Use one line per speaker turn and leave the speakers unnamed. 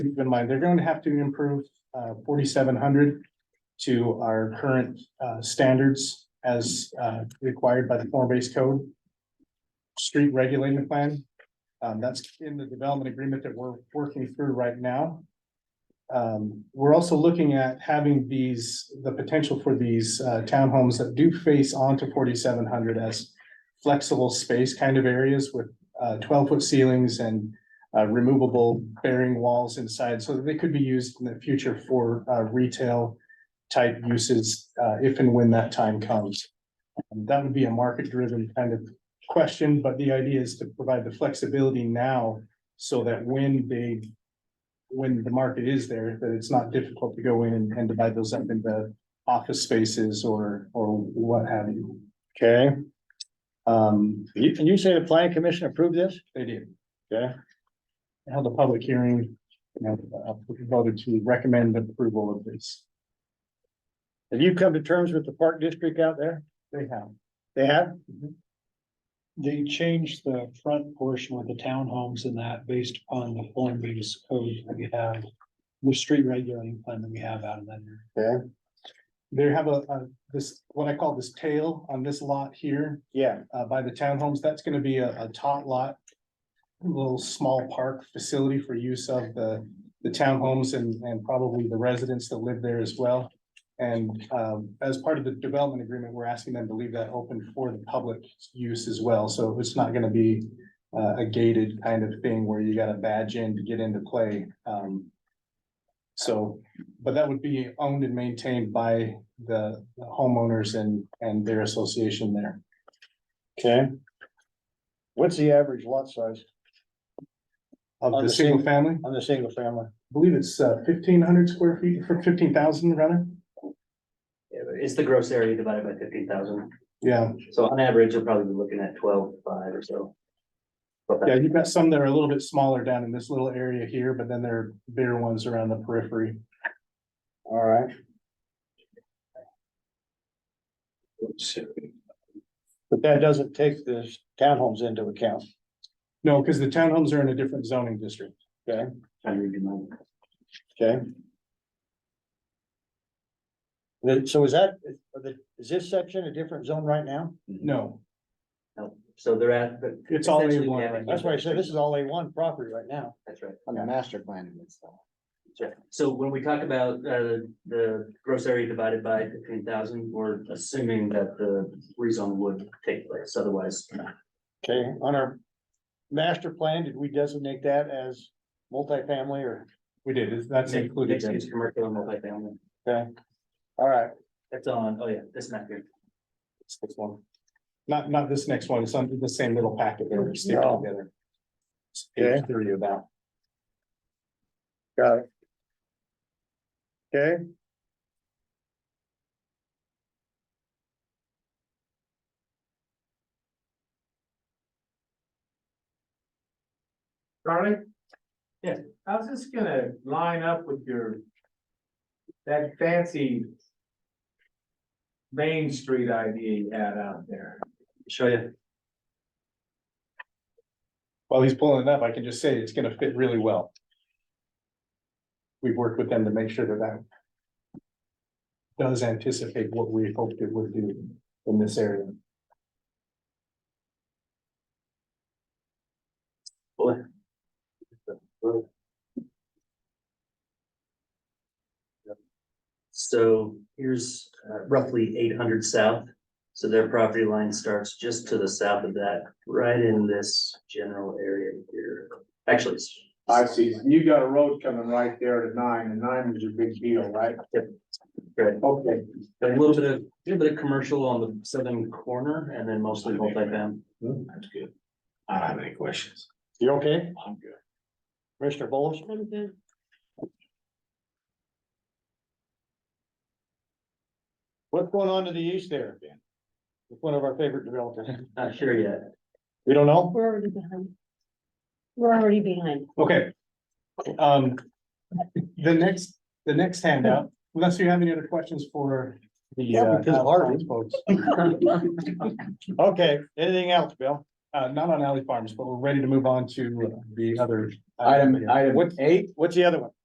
keep in mind, they're going to have to improve uh forty-seven hundred to our current uh standards as uh required by the form-based code. Street regulating plan, um, that's in the development agreement that we're working through right now. Um, we're also looking at having these, the potential for these uh townhomes that do face onto forty-seven hundred as flexible space kind of areas with uh twelve-foot ceilings and uh, removable bearing walls inside, so that they could be used in the future for, uh, retail type uses, uh, if and when that time comes. Um, That would be a market-driven kind of question, but the idea is to provide the flexibility now so that when they, when the market is there, that it's not difficult to go in and divide those up into office spaces or, or what have you.
Okay,
Um,
you, and you say the planning commission approved this?
they did.
Okay,
held a public hearing, you know, uh, voted to recommend approval of this.
have you come to terms with the park district out there?
They have. Mm-hmm.
They have?
They changed the front portion with the townhomes and that based upon the form based code that we have. The street regulating plan that we have out of that. area.
They have a, a, this, what I call this tail on this lot here,
Yeah,
uh, by the townhomes, that's gonna be a, a tot lot. a Little small park facility for use of the, the townhomes and, and probably the residents that live there as well. And, um, as part of the development agreement, we're asking them to leave that open for the public use as well, so it's not gonna be. Uh, a gated kind of thing where you gotta badge in to get into play, um. So, but that would be owned and maintained by the the homeowners and, and their association there.
okay. What's the average lot size
Of
On
the
the
single
same-
family, I
on the single family?
believe it's uh, fifteen hundred square feet for fifteen thousand rather.
It's the gross area divided by fifteen thousand.
Yeah,
So on average, you'll probably be looking at twelve five or so. But
yeah,
that-
you've got some that are a little bit smaller down in this little area here, but then there are bigger ones around the periphery.
All right. But that doesn't take the townhomes into account.
No, because the townhomes are in a different zoning district.
trying to read your mind.
Okay. Then- so is that, is- are the- is this section a different zone right now?
No,
No. So they're at. but
It's all
essentially
A1
we have-
right now.
That's why I said this is all A one property right now.
That's right.
On the master plan and stuff.
That's right. So when we talk about uh the gross area divided by fifteen thousand, we're assuming that the rezone would take place, otherwise.
Okay, on our master plan, did we designate that as multifamily or,
we did, It's- that's included.
Mixed
in
use, Commercial and multifamily.
all right,
That's on, oh yeah, that's not here.
This one. Not, not this next one, it's under the same little packet there, we're sticking
No.
together. It's
Okay.
Page thirty of that.
got it. Okay.
Charlie?
Yes.
How's this gonna line up with your? That fancy. Main Street idea you had out there.
Show you.
While he's pulling it up, I can just say it's gonna fit really well. We've worked with them to make sure that that. Does anticipate what we hoped it would do in this area.
So here's uh, roughly eight hundred south. So their property line starts just to the south of that, right in this general area here. Actually, it's
I see, you got a road coming right there to nine, and nine is your big deal, right?
right,
Okay,
a little bit of, a little bit of commercial on the southern corner and then mostly multifamily.
that's good. I don't have any questions.
You okay?
I'm good.
Commissioner Bowles? What's going on to the east there, Ben? It's one of our favorite developers.
Not sure yet.
We don't know?
We're already behind. We're already behind.
Okay. Um, the next, the next handout, unless you have any other questions for the.
Yeah,
uh,
because of Harvey.
folks.
Okay, anything else, Bill?
uh, not on Alley Farms, but we're ready to move on to the other.
Item, item
What's-
eight, what's the other one?